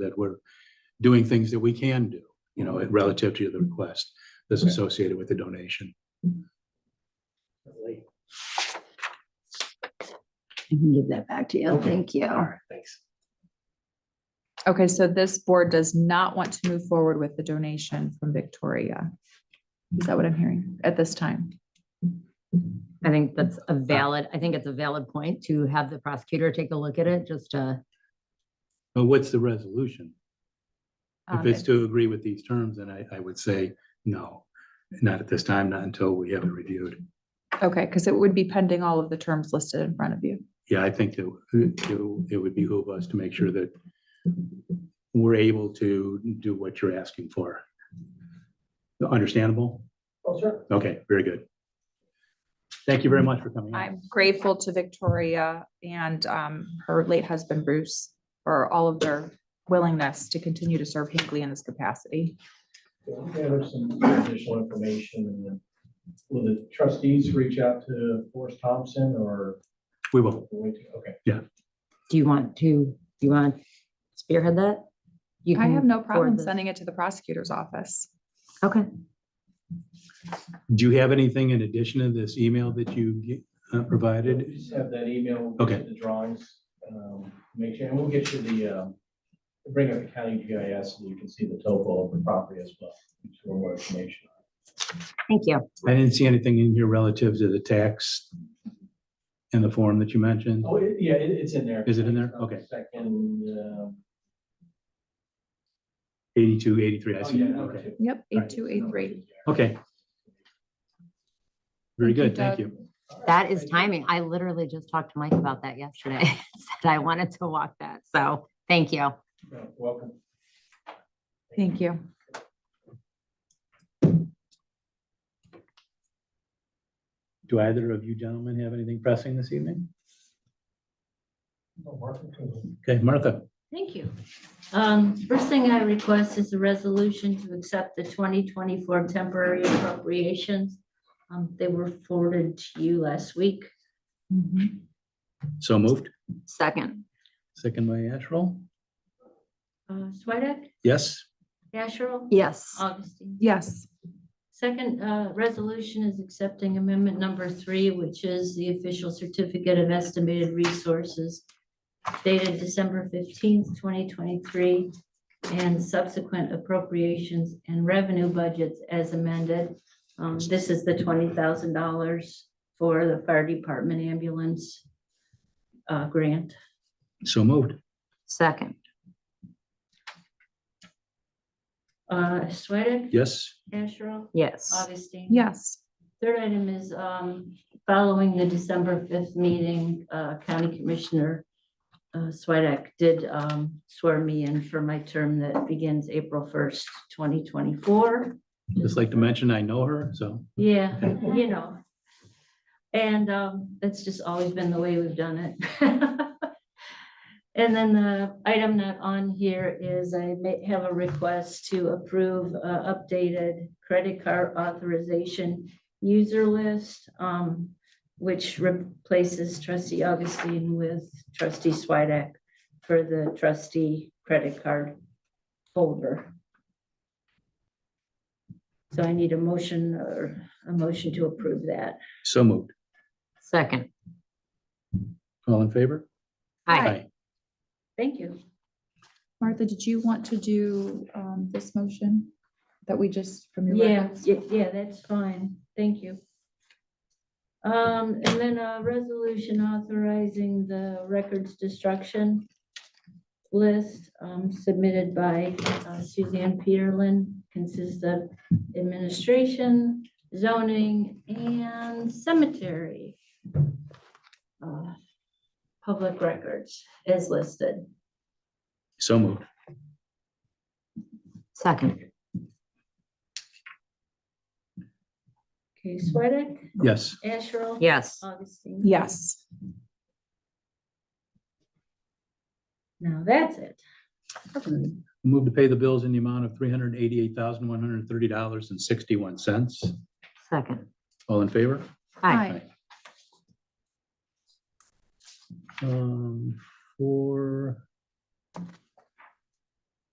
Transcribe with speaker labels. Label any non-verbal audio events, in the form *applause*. Speaker 1: that we're doing things that we can do, you know, relative to the request that's
Speaker 2: Okay.
Speaker 1: associated with the donation.
Speaker 3: All
Speaker 4: I can give that back to you.
Speaker 3: Okay.
Speaker 4: Thank you.
Speaker 3: right, thanks.
Speaker 2: Okay, so this board does not want to move forward with the donation from Victoria. Is that what I'm hearing at this time?
Speaker 5: I think that's a valid, I think it's a valid point to have the prosecutor take a look at it, just uh, to,
Speaker 1: But what's the resolution? If
Speaker 2: Um,
Speaker 1: it's to agree with these terms, then I, I would say no, not at this time, not until we have it reviewed.
Speaker 2: Okay, because it would be pending all of the terms listed in front of you.
Speaker 1: Yeah, I think that it it would behoove us to make sure that we're able to do what you're asking for. Understandable?
Speaker 3: Oh, sure.
Speaker 1: Okay, very good. Thank you very much for coming. in.
Speaker 2: I'm grateful to Victoria and um, her late husband Bruce for all of their willingness to continue to serve Hinckley in this capacity.
Speaker 3: Gather some additional information and then will the trustees reach out to Forrest Thompson or?
Speaker 1: We will.
Speaker 3: wait to- Okay.
Speaker 5: do you want to, do you want to spearhead that? You
Speaker 2: I
Speaker 5: can
Speaker 2: have no
Speaker 5: forward
Speaker 2: problem
Speaker 5: this.
Speaker 2: sending it to the prosecutor's office.
Speaker 5: Okay,
Speaker 1: Do you have anything in addition to this email that you uh, provided?
Speaker 3: Just have that email. we'll get
Speaker 1: Okay.
Speaker 3: The drawings, um, make sure, and we'll get you the, um, we'll bring up the county GIS so you can see the topo of the property as well. just for more information.
Speaker 5: thank you.
Speaker 1: I didn't see anything in here relative to the tax in the form that you mentioned.
Speaker 3: Oh, it- yeah, it, it's in there. Uh,
Speaker 1: Is it in there? Okay.
Speaker 3: Second, um,
Speaker 1: 82, 83, I
Speaker 3: oh,
Speaker 1: see.
Speaker 3: yeah, number
Speaker 1: Okay.
Speaker 3: two.
Speaker 2: Yep,
Speaker 1: All
Speaker 2: eight
Speaker 1: right.
Speaker 2: two eight three.
Speaker 1: Okay. Very
Speaker 2: Thank you,
Speaker 1: good. Thank
Speaker 2: Doug.
Speaker 1: you.
Speaker 5: That is timing. I literally just talked to Mike about that yesterday. *laughs* Said I wanted to walk that, so thank you.
Speaker 3: No, Welcome.
Speaker 2: Thank you.
Speaker 1: Do either of you gentlemen have anything pressing this evening?
Speaker 3: Oh, Martha, cool.
Speaker 1: Okay, Martha,
Speaker 6: Thank you. Um, First thing I request is a resolution to accept the 2024 temporary appropriations. Um, They were forwarded to you last week.
Speaker 1: so moved.
Speaker 5: Second.
Speaker 1: Second by Asherle.
Speaker 6: Uh, Swedek,
Speaker 1: Yes,
Speaker 6: Asherle,
Speaker 5: Yes.
Speaker 6: Augustine.
Speaker 2: Yes,
Speaker 6: Second uh, resolution is accepting amendment number three, which is the official certificate of estimated resources dated December fifteenth, twenty twenty-three, and subsequent appropriations and revenue budgets as amended. Um, This is the twenty thousand dollars for the fire department ambulance uh, grant.
Speaker 1: so moved.
Speaker 5: Second.
Speaker 6: Uh, Sweattick?
Speaker 1: Yes,
Speaker 6: Asherle?
Speaker 5: Yes.
Speaker 6: Augustine?
Speaker 2: yes.
Speaker 6: Third item is um, following the December 5th meeting, uh, County Commissioner uh, Swedek did um, swear me in for my term that begins April 1st, 2024.
Speaker 1: just like to mention, I know her, so
Speaker 6: Yeah, you know. And um, that's just always been the way we've done it. *laughs* And then the item not on here is I may have a request to approve uh, updated credit card authorization user list, um, which replaces trustee Augustine with trustee Swidek for the trustee credit card folder. So I need a motion or a motion to approve that.
Speaker 1: so moved.
Speaker 5: Second.
Speaker 1: All in favor?
Speaker 5: Hi.
Speaker 6: Thank you.
Speaker 2: Martha, did you want to do um, this motion that we just from your?
Speaker 6: Yeah, y- yeah, that's fine. Thank you. Um, and then a resolution authorizing the records destruction list um, submitted by uh, Suzanne Peterlin consists of administration, zoning, and cemetery uh, public records as listed.
Speaker 1: So moved.
Speaker 5: Second.
Speaker 6: Okay, Swedek,
Speaker 1: Yes,
Speaker 6: Asherle?
Speaker 5: Yes.
Speaker 6: Augustine?
Speaker 2: Yes.
Speaker 6: Now that's it.
Speaker 1: move to pay the bills in the amount of three hundred eighty-eight thousand, one hundred thirty dollars and sixty-one cents.
Speaker 5: Second.
Speaker 1: All in favor?
Speaker 5: Hi.
Speaker 1: Um, for